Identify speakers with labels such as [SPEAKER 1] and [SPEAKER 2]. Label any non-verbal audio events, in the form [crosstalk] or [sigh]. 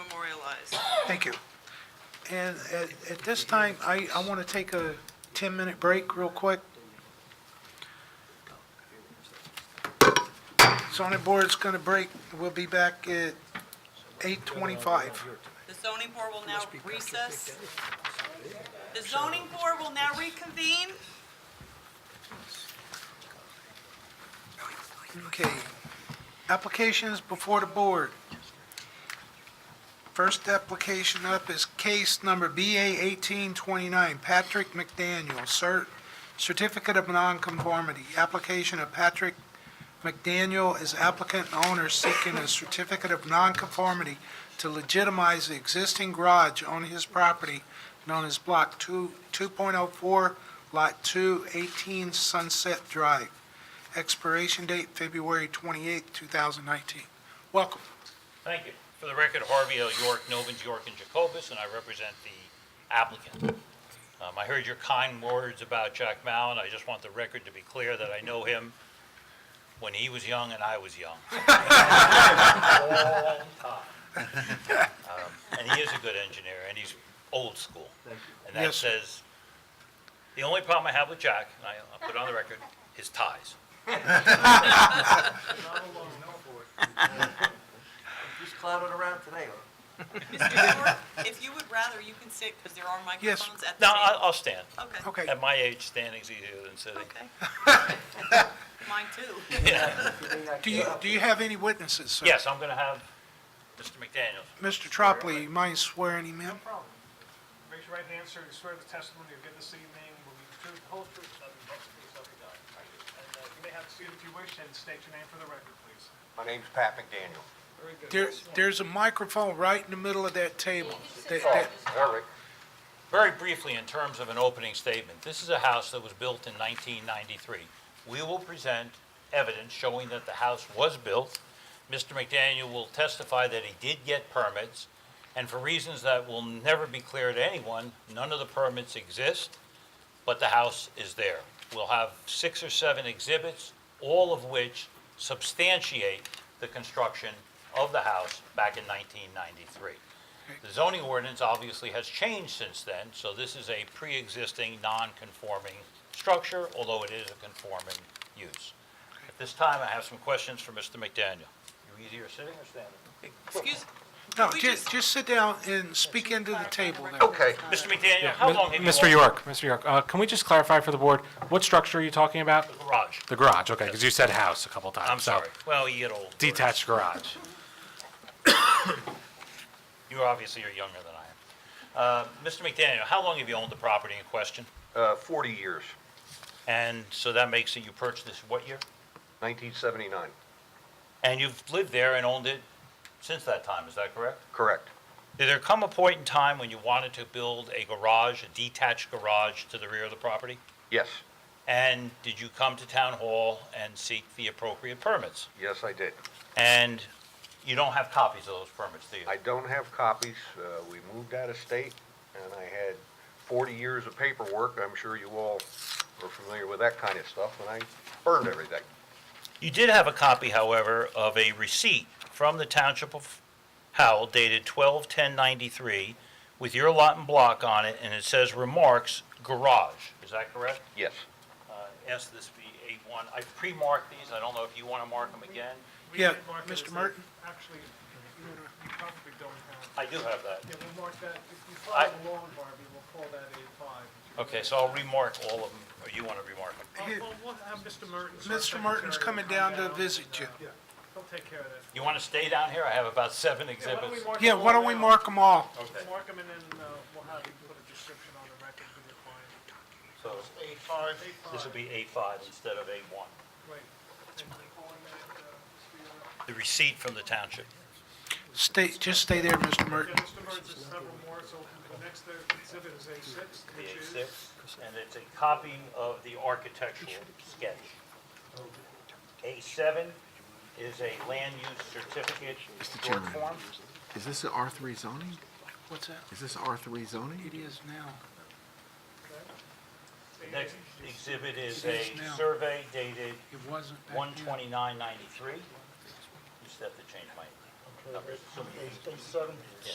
[SPEAKER 1] was.
[SPEAKER 2] Thank you. And at, at this time, I, I want to take a 10-minute break real quick. Zoning board's going to break. We'll be back at 8:25.
[SPEAKER 1] The zoning board will now recess. The zoning board will now reconvene.
[SPEAKER 2] Okay. Applications before the board. First application up is case number BA 1829, Patrick McDaniel, cer- Certificate of Nonconformity. Application of Patrick McDaniel is applicant and owner seeking a certificate of nonconformity to legitimize the existing garage on his property known as Block 2 2.04, Lot 2, 18 Sunset Drive expiration date February 28, 2019. Welcome.
[SPEAKER 3] Thank you. For the record, Harvey L. York, Novins, York, and Jacobus, and I represent the applicant. Um, I heard your kind words about Jack Mao, and I just want the record to be clear that I know him when he was young and I was young. Long time. Um, And he is a good engineer, and he's old school. And that
[SPEAKER 2] Yes, sir.
[SPEAKER 3] says, the only problem I have with Jack, and I- I'll put it on the record, is ties.
[SPEAKER 4] [laughs] Just clowning around today.
[SPEAKER 1] Mr. York, if you would rather, you can sit, because there are
[SPEAKER 2] Yes.
[SPEAKER 1] microphones at the
[SPEAKER 3] No, I-
[SPEAKER 1] table.
[SPEAKER 3] I'll stand.
[SPEAKER 1] Okay.
[SPEAKER 2] Okay,
[SPEAKER 3] At my age, standing's easier than sitting.
[SPEAKER 1] Okay. Mine too.
[SPEAKER 3] [laughs]
[SPEAKER 2] do you, do you have any witnesses, sir?
[SPEAKER 3] Yes, I'm going to have Mr. McDaniel.
[SPEAKER 2] Mr. Tropley, you mind swearing him in?
[SPEAKER 5] problem. Raise your right hand, sir. You swear the testimony you'll give this evening will be the truth, the whole truth, nothing but the truth, so help you God. And uh, you may have a seat if you wish and state your name for the record, please.
[SPEAKER 4] My name's Pat McDaniel.
[SPEAKER 5] Very good.
[SPEAKER 2] There, there's a microphone right in the middle of that table. That- that-
[SPEAKER 4] All right.
[SPEAKER 3] Very briefly, in terms of an opening statement, this is a house that was built in 1993. We will present evidence showing that the house was built. Mr. McDaniel will testify that he did get permits, and for reasons that will never be clear to anyone, none of the permits exist, but the house is there. We'll have six or seven exhibits, all of which substantiate the construction of the house back in 1993. The zoning ordinance obviously has changed since then, so this is a pre-existing, non-conforming structure, although it is a conforming use. At this time, I have some questions for Mr. McDaniel. You easier sitting or standing?
[SPEAKER 1] Excuse,
[SPEAKER 2] No,
[SPEAKER 1] We
[SPEAKER 2] ju-
[SPEAKER 1] just-
[SPEAKER 2] just sit down and speak into the table there.
[SPEAKER 4] Okay.
[SPEAKER 3] Mr. McDaniel, how
[SPEAKER 6] Mi-
[SPEAKER 3] long have you
[SPEAKER 6] Mr.
[SPEAKER 3] owned
[SPEAKER 6] York, Mr. York, uh, can we just clarify for the board, what structure are you talking about?
[SPEAKER 3] the garage?
[SPEAKER 6] The garage, okay, because you said house a couple times.
[SPEAKER 3] I'm
[SPEAKER 6] so
[SPEAKER 3] sorry. Well, you get old.
[SPEAKER 6] Detached garage.
[SPEAKER 3] You obviously are younger than I am. Uh, Mr. McDaniel, how long have you owned the property in question?
[SPEAKER 4] Uh, 40 years,
[SPEAKER 3] And so that makes it you purchased this what year?
[SPEAKER 4] 1979.
[SPEAKER 3] And you've lived there and owned it since that time, is that correct?
[SPEAKER 4] Correct.
[SPEAKER 3] Did there come a point in time when you wanted to build a garage, a detached garage to the rear of the property?
[SPEAKER 4] Yes.
[SPEAKER 3] And did you come to town hall and seek the appropriate permits?
[SPEAKER 4] Yes, I did.
[SPEAKER 3] And you don't have copies of those permits, do you?
[SPEAKER 4] I don't have copies. Uh, we moved out of state and I had 40 years of paperwork. I'm sure you all are familiar with that kind of stuff and I burned everything.
[SPEAKER 3] You did have a copy, however, of a receipt from the Township of Howell dated 12/10/93 with your lot and block on it, and it says remarks garage. Is that correct?
[SPEAKER 4] Yes.
[SPEAKER 3] Uh, Ask this be A1. I pre-marked these. I don't know if you want to mark them again.
[SPEAKER 5] We
[SPEAKER 2] Yeah,
[SPEAKER 5] did mark
[SPEAKER 2] Mr.
[SPEAKER 5] it as a-
[SPEAKER 2] Martin?
[SPEAKER 5] Actually, you you probably don't have.
[SPEAKER 3] I do have that.
[SPEAKER 5] Yeah, we'll mark that. If you
[SPEAKER 3] I-
[SPEAKER 5] follow along, Barbie, we'll call that A5.
[SPEAKER 3] Okay, so I'll remark all of them, or you want to remark them.
[SPEAKER 5] Well, Well, Uh, we'll have Mr. Mertens. our
[SPEAKER 2] Mr. Martin's
[SPEAKER 5] secretary,
[SPEAKER 2] coming
[SPEAKER 5] come
[SPEAKER 2] down to visit you.
[SPEAKER 5] and, uh, Yeah, he'll take care of that.
[SPEAKER 3] You want to stay down here? I have about seven
[SPEAKER 5] Yeah, why don't we
[SPEAKER 3] exhibits.
[SPEAKER 5] mark
[SPEAKER 2] Yeah,
[SPEAKER 5] them
[SPEAKER 2] why
[SPEAKER 5] all
[SPEAKER 2] don't we
[SPEAKER 5] down?
[SPEAKER 2] mark them all?
[SPEAKER 3] Okay,
[SPEAKER 5] Mark them and then uh, we'll have you put a description on the record with your client.
[SPEAKER 3] so
[SPEAKER 5] A5.
[SPEAKER 3] this will be A5 instead of A1.
[SPEAKER 5] Right. And then calling that, uh,
[SPEAKER 3] The receipt from the township.
[SPEAKER 2] Stay, just stay there, Mr.
[SPEAKER 5] yeah,
[SPEAKER 2] Merton.
[SPEAKER 5] Mr. Burns is several more, so the next uh, exhibit is A6,
[SPEAKER 3] the
[SPEAKER 5] which is...
[SPEAKER 3] A6, and it's a copy of the architectural sketch. A7 is a land use certificate
[SPEAKER 7] Mr.
[SPEAKER 3] short
[SPEAKER 7] Chairman.
[SPEAKER 3] form.
[SPEAKER 7] Is this a R3 zoning?
[SPEAKER 2] What's that?
[SPEAKER 7] Is this R3 zoning?
[SPEAKER 2] It is now.
[SPEAKER 3] The next exhibit is
[SPEAKER 2] It is
[SPEAKER 3] a
[SPEAKER 2] now.
[SPEAKER 3] survey dated
[SPEAKER 2] It wasn't back
[SPEAKER 3] one
[SPEAKER 2] then.
[SPEAKER 3] twenty-nine ninety-three. You just have to change my numbers.